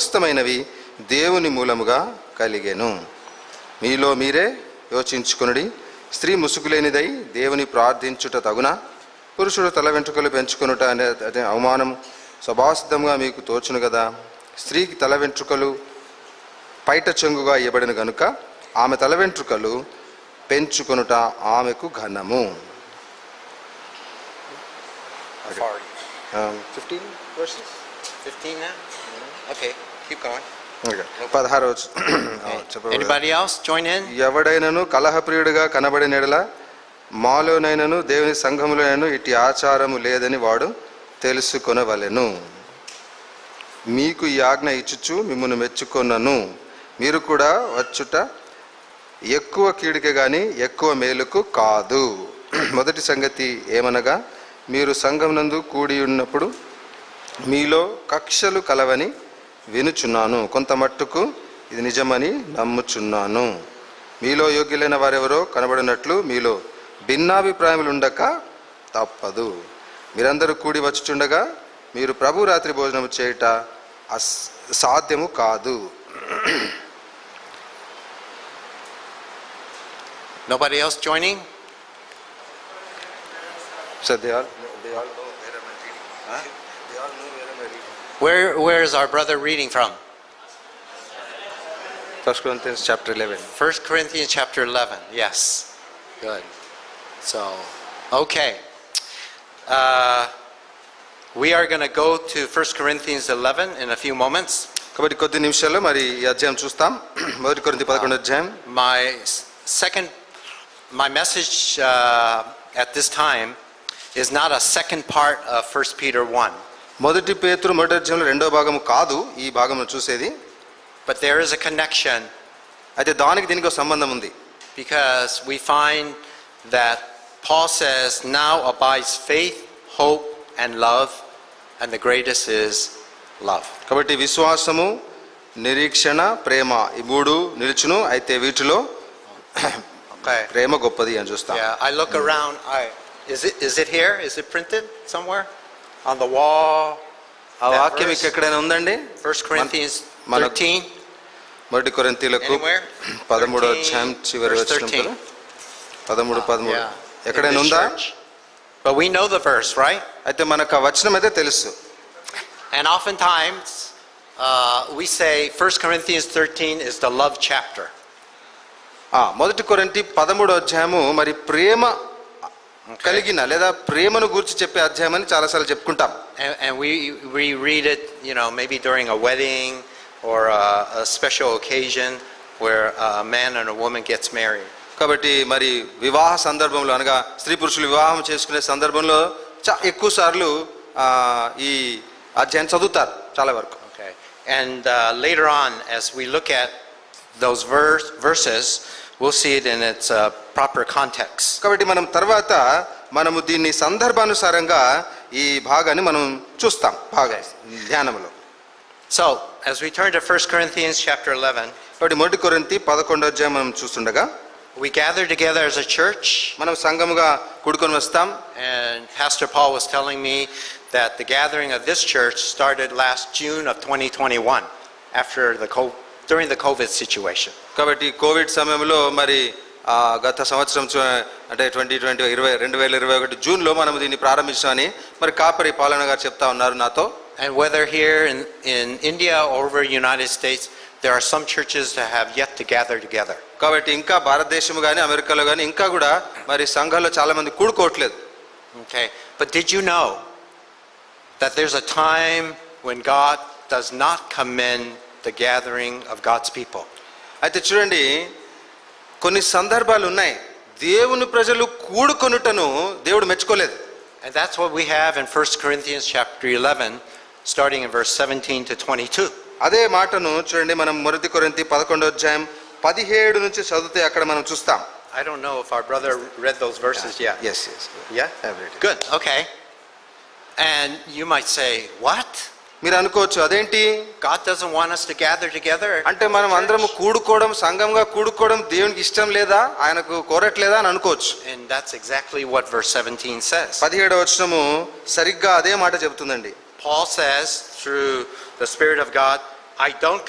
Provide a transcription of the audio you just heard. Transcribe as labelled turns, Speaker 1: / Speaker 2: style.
Speaker 1: సమస్తమైనవి దేవుని మూలముగా కలిగెను మీలో మీరే యోచించుకునుడి స్త్రీ ముసుగులేనిదై దేవుని ప్రార్థించుట తగున పురుషుడు తల వెంట్రుకలు పెంచుకొనుట అనే అనే అవమానం స్వభావసిద్ధంగా మీకు తోచును కదా స్త్రీకి తల వెంట్రుకలు పైట చెంగుగా ఇవ్వబడిన గనుక ఆమె తల వెంట్రుకలు పెంచుకొనుట ఆమెకు ఘనము
Speaker 2: How far are you?
Speaker 1: ఆ,
Speaker 2: 15 verses? 15 now? Mm-hmm. Okay, keep going.
Speaker 1: ఇంకా పదహారు వచ్చు. ఆ, చెప్పబడదు.
Speaker 2: Anybody else join in?
Speaker 1: ఎవడైనను కలహప్రియుడిగా కనబడిన ఎడల మాలోనైనను దేవుని సంఘములోనైనను ఇట్టి ఆచారము లేదని వాడు తెలుసుకొనవలెను మీకు ఈ ఆజ్ఞ ఇచ్చుచు మిమ్మల్ని మెచ్చుకొనను మీరు కూడా వచ్చుట ఎక్కువ కీడికి కానీ ఎక్కువ మేలుకు కాదు మొదటి సంగతి ఏమనగా మీరు సంఘమునందు కూడి ఉన్నప్పుడు మీలో కక్షలు కలవని వినుచున్నాను కొంత మట్టుకు ఇది నిజమని నమ్ముచున్నాను మీలో యోగ్యులైన వారెవరో కనబడినట్లు మీలో భిన్నాభిప్రాయములు ఉండక తప్పదు మీరందరూ కూడి వచ్చుచుండగా మీరు ప్రభు రాత్రి భోజనం చేయుట అస్ సాధ్యము కాదు
Speaker 2: Nobody else joining?
Speaker 1: Sir they all
Speaker 2: Where, where is our brother reading from?
Speaker 1: First Corinthians chapter 11
Speaker 2: First Corinthians chapter 11, yes. Good. So, okay. Uh, We are going to go to First Corinthians 11 in a few moments.
Speaker 1: కాబట్టి కొద్ది నిమిషాల్లో మరి ఈ అధ్యాయం చూస్తాం మొదటి కొరింథీ పదకొండు అధ్యాయం
Speaker 2: My s- second, my message uh, at this time is not a second part of 1 Peter 1,
Speaker 1: మొదటి పేతురు మొదటి అధ్యాయంలో రెండో భాగము కాదు ఈ భాగము చూసేది
Speaker 2: but there is a connection
Speaker 1: అయితే దానికి దీనికి ఒక సంబంధం ఉంది
Speaker 2: because we find that Paul says, Now abides faith, hope, and love, and the greatest is love.
Speaker 1: కాబట్టి విశ్వాసము నిరీక్షణ ప్రేమ ఈ మూడు నిలుచును అయితే వీటిలో
Speaker 2: Okay.
Speaker 1: ప్రేమ గొప్పది అని చూస్తాం
Speaker 2: Yeah, I look around. I, is, it, is it here? Is it printed somewhere? On the wall?
Speaker 1: ఆ
Speaker 2: That
Speaker 1: వాక్యం
Speaker 2: verse?
Speaker 1: మీకు ఎక్కడైనా ఉందండి
Speaker 2: 1 Corinthians
Speaker 1: మన-
Speaker 2: 13?
Speaker 1: మొదటి కొరింతీలకు
Speaker 2: Anywhere?
Speaker 1: పదమూడో
Speaker 2: 13,
Speaker 1: అధ్యాయం చివరి
Speaker 2: verse
Speaker 1: వచ్చిన
Speaker 2: 13.
Speaker 1: పదమూడు పదమూడు
Speaker 2: Yeah.
Speaker 1: ఎక్కడైనా
Speaker 2: In this
Speaker 1: ఉందా
Speaker 2: church. But we know the verse, right?
Speaker 1: అయితే మనకు ఆ వచనం అయితే తెలుసు
Speaker 2: And oftentimes, uh, we say 1 Corinthians 13 is the love chapter.
Speaker 1: ఆ మొదటి కొరింటి పదమూడో అధ్యాయము మరి ప్రేమ కలిగిన లేదా ప్రేమను గురించి చెప్పే అధ్యాయం అని చాలాసార్లు చెప్పుకుంటాం
Speaker 2: And, and we, we read it, you know, maybe during a wedding or a, a special occasion where a man and a woman gets married.
Speaker 1: కాబట్టి మరి వివాహ సందర్భంలో అనగా స్త్రీ పురుషులు వివాహం చేసుకునే సందర్భంలో చా ఎక్కువ సార్లు ఆ, ఈ అధ్యాయం చదువుతారు చాలా వరకు
Speaker 2: Okay. And uh, later on, as we look at those verse, verses, we'll see it in its uh, proper context.
Speaker 1: కాబట్టి మనం తర్వాత మనము దీన్ని సందర్భానుసారంగా ఈ భాగాన్ని మనం చూస్తాం బాగా ధ్యానంలో
Speaker 2: So, as we turn to 1 Corinthians chapter 11,
Speaker 1: కాబట్టి మొదటి కొరింతి పదకొండో అధ్యాయం మనం చూస్తుండగా
Speaker 2: We gather together as a church,
Speaker 1: మనం సంఘముగా కూడుకొని వస్తాం
Speaker 2: and Pastor Paul was telling me that the gathering of this church started last June of 2021, after the co- during the COVID situation.
Speaker 1: కాబట్టి కోవిడ్ సమయంలో మరి ఆ, గత సంవత్సరం చూ- అంటే ట్వంటీ ట్వంటీ ఇరవై రెండు వేల ఇరవై ఒకటి జూన్లో మనం దీన్ని ప్రారంభించామని మరి కాపరి పాలన గారు చెప్తా ఉన్నారు నాతో
Speaker 2: And whether here in, in India or over the United States, there are some churches that have yet to gather together.
Speaker 1: కాబట్టి ఇంకా భారతదేశం కానీ అమెరికాలో కానీ ఇంకా కూడా మరి సంఘాల్లో చాలా మంది కూడుకోవట్లేదు
Speaker 2: Okay, but did you know that there's a time when God does not commend the gathering of God's people?
Speaker 1: అయితే చూడండి కొన్ని సందర్భాలు ఉన్నాయి దేవుని ప్రజలు కూడుకొనుటను దేవుడు మెచ్చుకోలేదు
Speaker 2: And that's what we have in 1 Corinthians chapter 11, starting in verse 17 to 22.
Speaker 1: అదే మాటను చూడండి మనం మొదటి కొరింథీ పదకొండో అధ్యాయం పదిహేడు నుంచి చదివితే అక్కడ మనం చూస్తాం
Speaker 2: I don't know if our brother read those verses yet.
Speaker 1: Yes yes
Speaker 2: Yeah?
Speaker 1: I've read it.
Speaker 2: Good, okay. And you might say, what?
Speaker 1: మీరు అనుకోవచ్చు అదేంటి
Speaker 2: God doesn't want us to gather together?
Speaker 1: అంటే మనం అందరం కూడుకోవడం సంఘంగా కూడుకోవడం దేవునికి ఇష్టం లేదా ఆయనకు కోరట్లేదా అని అనుకోవచ్చు
Speaker 2: And that's exactly what verse 17 says.
Speaker 1: పదిహేడవ వచనము సరిగ్గా అదే మాట చెబుతుందండి
Speaker 2: Paul says, through the Spirit of God, I don't